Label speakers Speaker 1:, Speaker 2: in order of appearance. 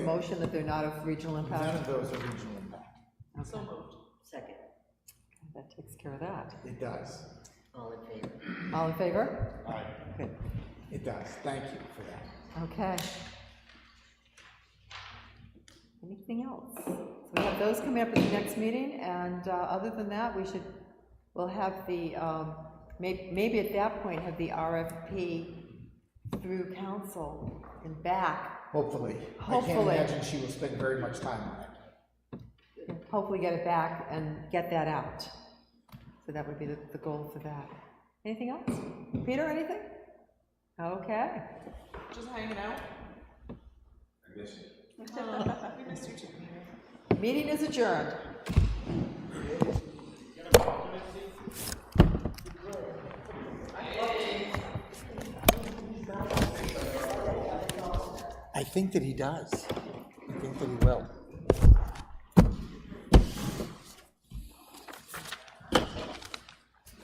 Speaker 1: Motion that they're not of regional
Speaker 2: None
Speaker 1: impact?
Speaker 2: of those are regional impact.
Speaker 3: So moved. Second.
Speaker 1: That takes care of that.
Speaker 2: It does.
Speaker 3: All in favor?
Speaker 1: All in favor?
Speaker 2: Aye.
Speaker 1: Good,
Speaker 2: It does. Thank you for that.
Speaker 1: okay. Anything else? So we have those coming up at the next meeting, and uh, other than that, we should, we'll have the, um, may- maybe at that point, have the RFP through council and back,
Speaker 2: Hopefully. I can't
Speaker 1: Hopefully.
Speaker 2: imagine she will spend very much time on it.
Speaker 1: and hopefully get it back and get that out. So that would be the the goal for that. Anything else? Peter, anything? Okay.
Speaker 4: Just hanging out. I miss you. We missed you too.
Speaker 1: Meeting is adjourned.
Speaker 2: I think that he does. I think that he will.